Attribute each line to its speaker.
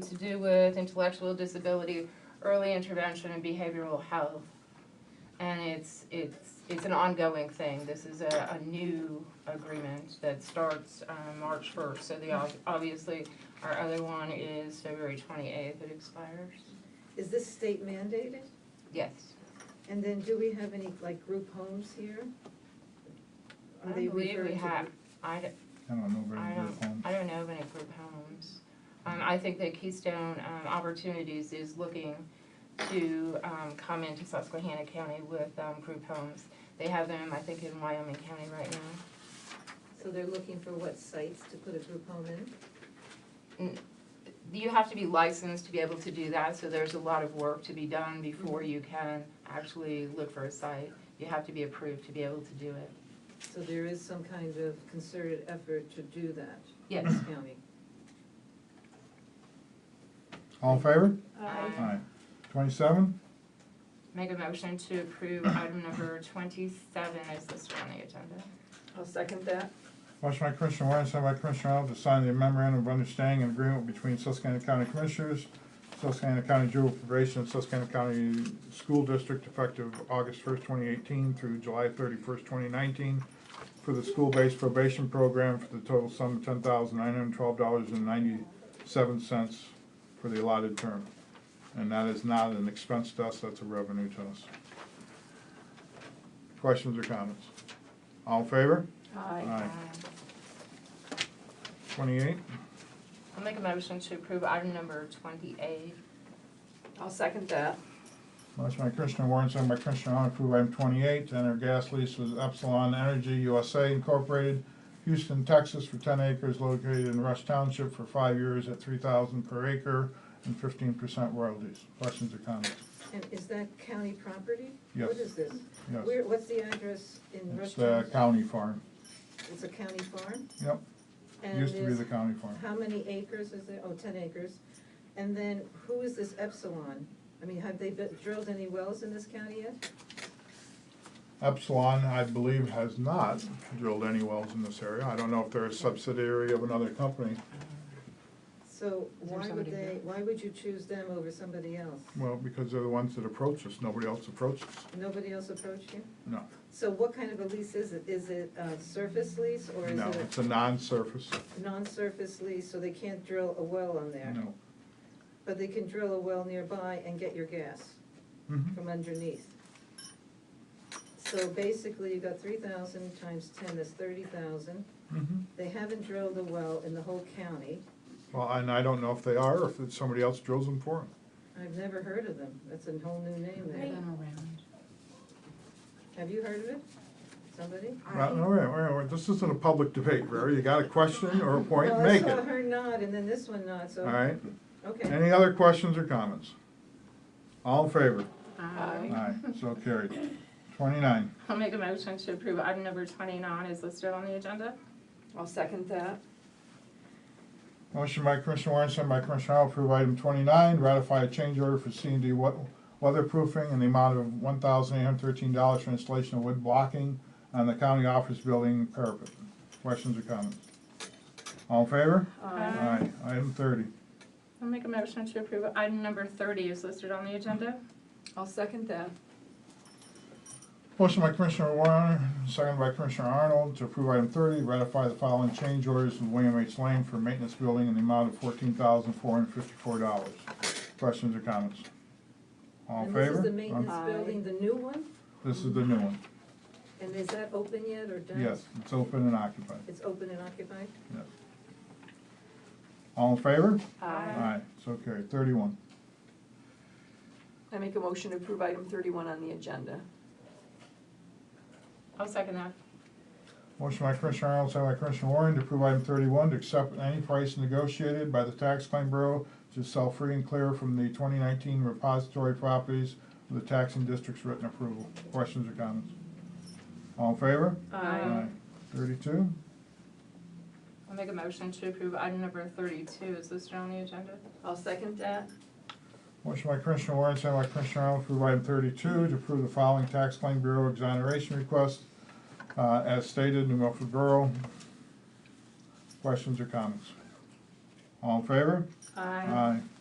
Speaker 1: to do with intellectual disability, early intervention and behavioral health. And it's, it's, it's an ongoing thing. This is a, a new agreement that starts, um, March first. So the, ob- obviously, our other one is February twenty-eighth, it expires.
Speaker 2: Is this state mandated?
Speaker 1: Yes.
Speaker 2: And then do we have any, like, group homes here?
Speaker 1: I
Speaker 2: Are they
Speaker 1: believe we
Speaker 2: referred to
Speaker 1: have, I, d-
Speaker 3: I don't know very
Speaker 1: I
Speaker 3: good homes.
Speaker 1: I don't know of any group homes. Um, I think that Keystone, um, Opportunities is looking to, um, come into Susquehanna County with, um, group homes. They have them, I think, in Wyoming County right now.
Speaker 2: So they're looking for what sites to put a group home in?
Speaker 1: You have to be licensed to be able to do that, so there's a lot of work to be done before you can actually look for a site. You have to be approved to be able to do it.
Speaker 2: So there is some kind of concerted effort to do that
Speaker 1: Yes.
Speaker 2: in this county.
Speaker 3: All in favor?
Speaker 1: Aye.
Speaker 3: Aye. Twenty-seven,
Speaker 1: Make a motion to approve item number twenty-seven is listed on the agenda.
Speaker 4: I'll second that.
Speaker 3: motion by Commissioner Warren, second by Commissioner Arnold, to sign the memorandum of understanding and agreement between Susquehanna County Commissioners, Susquehanna County Juvenile Probation, and Susquehanna County School District effective August first, twenty eighteen through July thirty-first, twenty nineteen, for the school-based probation program for the total sum of ten thousand nine hundred and twelve dollars and ninety-seven cents for the allotted term. And that is not an expense to us, that's a revenue to us. Questions or comments? All in favor?
Speaker 4: Aye.
Speaker 3: Aye.
Speaker 1: Aye.
Speaker 3: Twenty-eight,
Speaker 1: I'll make a motion to approve item number twenty-eight.
Speaker 4: I'll second that.
Speaker 3: motion by Commissioner Warren, second by Commissioner Arnold, approve item twenty-eight, to enter gas lease with Epsilon Energy USA Incorporated, Houston, Texas, for ten acres located in Rush Township for five years at three thousand per acre and fifteen percent royalties. Questions or comments?
Speaker 2: And is that county property?
Speaker 3: Yes.
Speaker 2: What is this?
Speaker 3: Yes,
Speaker 2: Where, what's the address in
Speaker 3: it's uh, the
Speaker 2: Rushtown?
Speaker 3: county farm,
Speaker 2: It's a county farm?
Speaker 3: Yep.
Speaker 2: And
Speaker 3: used to be
Speaker 2: is-
Speaker 3: the county farm.
Speaker 2: How many acres is it? Oh, ten acres. And then who is this Epsilon? I mean, have they bu- drilled any wells in this county yet?
Speaker 3: Epsilon, I believe, has not drilled any wells in this area. I don't know if they're a subsidiary of another company.
Speaker 2: So
Speaker 1: Is there
Speaker 2: why would
Speaker 1: somebody
Speaker 2: they,
Speaker 1: here?
Speaker 2: why would you choose them over somebody else?
Speaker 3: Well, because they're the ones that approach us, nobody else approaches,
Speaker 2: Nobody else approached you?
Speaker 3: no.
Speaker 2: So what kind of a lease is it? Is it a surface lease or is
Speaker 3: No,
Speaker 2: it
Speaker 3: it's a non-surface,
Speaker 2: a non-surface lease, so they can't drill a well on there?
Speaker 3: no.
Speaker 2: But they can drill a well nearby and get your gas
Speaker 3: Mhm.
Speaker 2: from underneath. So basically, you got three thousand times ten, that's thirty thousand.
Speaker 3: Mhm.
Speaker 2: They haven't drilled a well in the whole county.
Speaker 3: Well, and I don't know if they are, or if it's somebody else drills them for them.
Speaker 2: I've never heard of them. That's a whole new name there. Have you heard of it? Somebody?
Speaker 3: Well, all right, all right, all right, this isn't a public debate, Vera, you got a question or a point,
Speaker 2: Well,
Speaker 3: make
Speaker 2: I saw
Speaker 3: it.
Speaker 2: her nod and then this one nod, so.
Speaker 3: All right,
Speaker 2: Okay.
Speaker 3: any other questions or comments? All in favor?
Speaker 4: Aye.
Speaker 3: Aye, so carried. Twenty-nine,
Speaker 1: I'll make a motion to approve item number twenty-nine is listed on the agenda.
Speaker 4: I'll second that.
Speaker 3: Motion by Commissioner Warren, sent by Commissioner Arnold, approve item twenty-nine, ratify a change order for C and D weatherproofing in the amount of one thousand eight hundred thirteen dollars for installation of wood blocking on the county office building parapet. Questions or comments? All in favor?
Speaker 1: Aye.
Speaker 3: Item thirty.
Speaker 1: I'll make a motion to approve item number thirty is listed on the agenda.
Speaker 4: I'll second that.
Speaker 3: Motion by Commissioner Warren, second by Commissioner Arnold, to approve item thirty, ratify the following change orders with William H. Lane for maintenance building in the amount of fourteen thousand four hundred fifty-four dollars. Questions or comments? All in
Speaker 2: And
Speaker 3: favor?
Speaker 2: this is the
Speaker 3: Um,
Speaker 2: maintenance building, the new one?
Speaker 3: This is the new one.
Speaker 2: And is that open yet or done?
Speaker 3: Yes, it's open and occupied.
Speaker 2: It's open and occupied?
Speaker 3: All in favor?
Speaker 4: Um,
Speaker 1: Aye.
Speaker 3: Aye, so carried. Thirty-one.
Speaker 4: I make a motion to approve item thirty-one on the agenda.
Speaker 1: I'll second that.
Speaker 3: Motion by Commissioner Arnold, second by Commissioner Warren to approve item thirty-one to accept any price negotiated by the Tax Claim Bureau to sell free and clear from the twenty nineteen repository properties with the taxing district's written approval. Questions or comments? All in favor?
Speaker 1: Aye.
Speaker 3: Thirty-two.
Speaker 1: I'll make a motion to approve item number thirty-two is listed on the agenda.
Speaker 4: I'll second that.
Speaker 3: Motion by Commissioner Warren, second by Commissioner Arnold, to approve item thirty-two, to approve the following tax claim bureau exoneration request, uh, as stated, New Milford Borough. Questions or comments? All in favor?
Speaker 5: Aye.
Speaker 3: Aye.